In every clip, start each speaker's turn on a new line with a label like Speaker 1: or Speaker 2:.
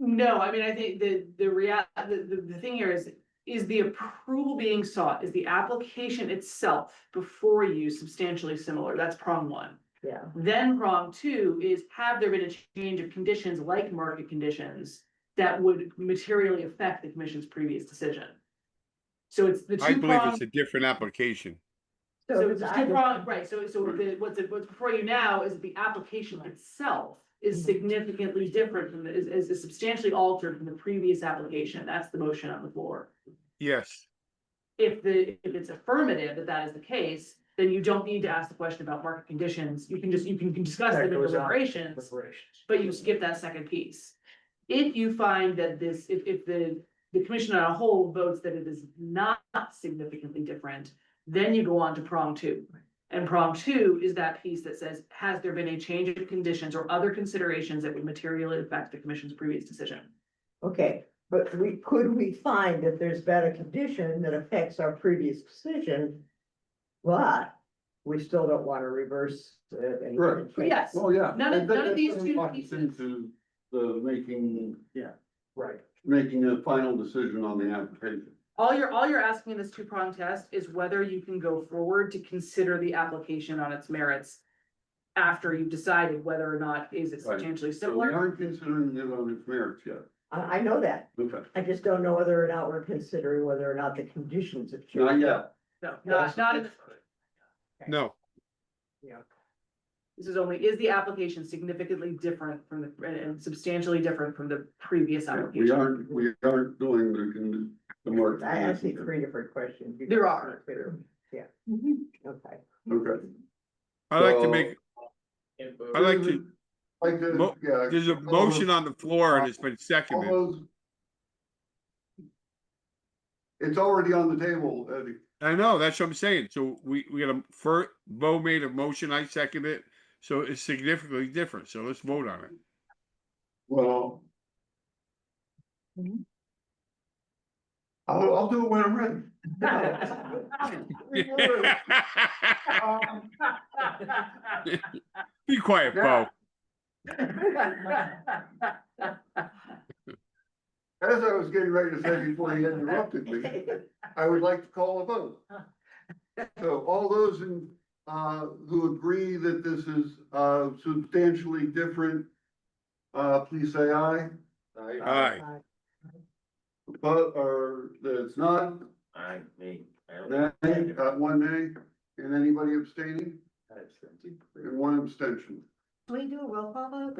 Speaker 1: No, I mean, I think the, the rea- the, the, the thing here is, is the approval being sought, is the application itself before you substantially similar, that's prong one.
Speaker 2: Yeah.
Speaker 1: Then prong two is have there been a change of conditions like market conditions that would materially affect the commission's previous decision? So it's the
Speaker 3: I
Speaker 1: two
Speaker 3: believe
Speaker 1: prong,
Speaker 3: it's a different application.
Speaker 1: so it's two prong, right, so, so the, what's, what's before you now is the application itself is
Speaker 2: Mhm.
Speaker 1: significantly different from, the- is, is substantially altered from the previous application, that's the motion on the floor.
Speaker 3: Yes,
Speaker 1: If the, if it's affirmative that that is the case, then you don't need to ask the question about market conditions, you can just, you can discuss
Speaker 2: That
Speaker 1: them in
Speaker 2: goes on.
Speaker 1: deliberations but you skip that second piece. If you find that this, if, if the, the commission on a whole votes that it is not significantly different, then you go on to prong two. And prong two is that piece that says, has there been a change of conditions or other considerations that would materially affect the commission's previous decision?
Speaker 2: Okay, but we, could we find that there's been a condition that affects our previous decision? But we still don't want to reverse. uh, any-
Speaker 4: Right.
Speaker 1: Yes.
Speaker 4: Oh, yeah.
Speaker 1: None of-
Speaker 4: That-
Speaker 1: none of
Speaker 4: that
Speaker 1: these
Speaker 4: really
Speaker 1: two
Speaker 4: locks
Speaker 1: pieces.
Speaker 4: Into the making,
Speaker 2: Yeah, right.
Speaker 4: making a final decision on the application.
Speaker 1: All you're, all you're asking in this two prong test is whether you can go forward to consider the application on its merits after you've decided whether or not is it
Speaker 4: Right.
Speaker 1: substantially
Speaker 4: So we
Speaker 1: similar.
Speaker 4: aren't considering it on its merits yet.
Speaker 2: I, I know that.
Speaker 4: Okay.
Speaker 2: I just don't know whether or not we're considering whether or not the conditions have changed.
Speaker 4: Not yet.
Speaker 1: No, not, not in the
Speaker 3: no,
Speaker 2: Yeah.
Speaker 1: This is only, is the application significantly different from the, and substantially different from the previous
Speaker 4: We
Speaker 1: application?
Speaker 4: aren't, we aren't doing the, con- the market.
Speaker 2: I asked you
Speaker 4: conditions.
Speaker 2: three different questions. You
Speaker 1: There
Speaker 2: just
Speaker 1: are. Mm-hmm.
Speaker 2: weren't clear. Yeah, okay.
Speaker 4: Okay.
Speaker 3: I'd like to
Speaker 4: So-
Speaker 3: make, I'd like to,
Speaker 4: Like to-
Speaker 3: Mo-
Speaker 4: yeah.
Speaker 3: there's a
Speaker 4: all those-
Speaker 3: motion on the floor and it's been
Speaker 4: all
Speaker 3: seconded.
Speaker 4: those- It's already on the table, Eddie.
Speaker 3: I know, that's what I'm saying. So we, we got a first, Bo made a motion, I second it. So it's significantly different. So let's vote on it.
Speaker 4: Well.
Speaker 2: Mhm.
Speaker 4: I'll, I'll do it when I'm ready.
Speaker 3: Be quiet, Bo.
Speaker 4: As I was getting ready to say before he interrupted me, I would like to call a vote. So all those in, uh, who agree that this is, uh, substantially different, uh, please say aye. Uh,
Speaker 3: Aye.
Speaker 4: But, or that it's not,
Speaker 5: I, me. I don't-
Speaker 4: nay, uh, one nay, and anybody abstaining, and one abstention.
Speaker 2: Can we do a roll call vote?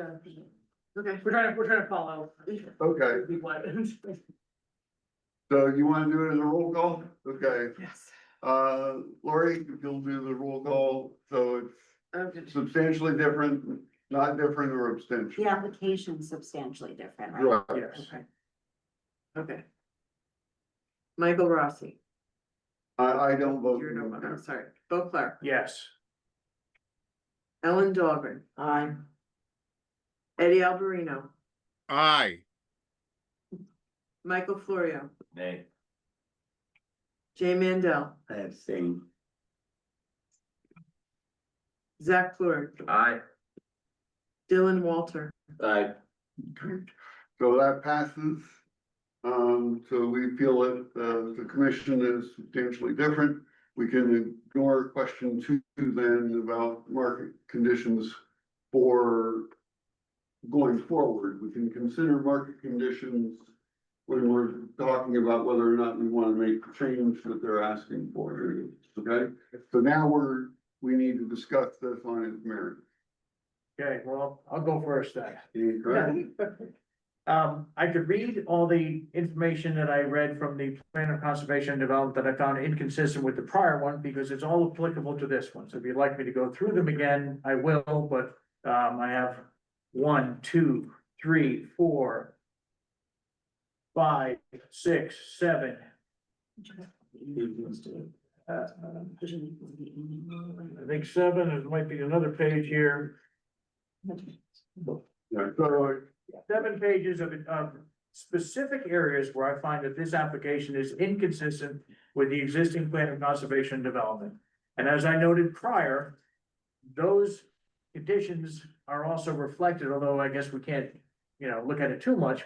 Speaker 1: Okay, we're trying to, we're trying to follow.
Speaker 4: Okay,
Speaker 1: What?
Speaker 4: so you wanna do it as a roll call? Okay,
Speaker 1: Yes.
Speaker 4: uh, Lori, if you'll do the roll call, so
Speaker 1: Okay.
Speaker 4: it's substantially different, not different or abstention.
Speaker 6: The application's substantially different, right?
Speaker 4: Right.
Speaker 6: Okay.
Speaker 1: Okay. Michael Rossi,
Speaker 4: I, I don't vote.
Speaker 1: sorry, Bo Clark,
Speaker 5: Yes.
Speaker 1: Ellen Dahlgren,
Speaker 2: Aye.
Speaker 1: Eddie Alberino,
Speaker 3: Aye,
Speaker 1: Michael Florio,
Speaker 5: Nay.
Speaker 1: Jay Mandel,
Speaker 5: I abstain.
Speaker 1: Zach Fleur,
Speaker 5: Aye.
Speaker 1: Dylan Walter.
Speaker 5: Aye.
Speaker 4: So that passes. Um, so we feel that, uh, the commission is substantially different. We can ignore question two then about market conditions for going forward. We can consider market conditions when we're talking about whether or not we want to make the change that they're asking for, okay? So now we're, we need to discuss this on its merit.
Speaker 7: Okay, well, I'll go first then.
Speaker 4: Okay?
Speaker 7: Um, I could read all the information that I read from the plan of conservation and development that I found inconsistent with the prior one, because it's all applicable to this one. So if you'd like me to go through them again, I will, but, um, I have one, two, three, four, five, six, seven, uh, I think seven, and might be another page here.
Speaker 4: Yeah, so
Speaker 7: seven pages of, of specific areas where I find that this application is inconsistent with the existing plan of conservation and development. And as I noted prior, those conditions are also reflected, although I guess we can't, you know, look at it too much,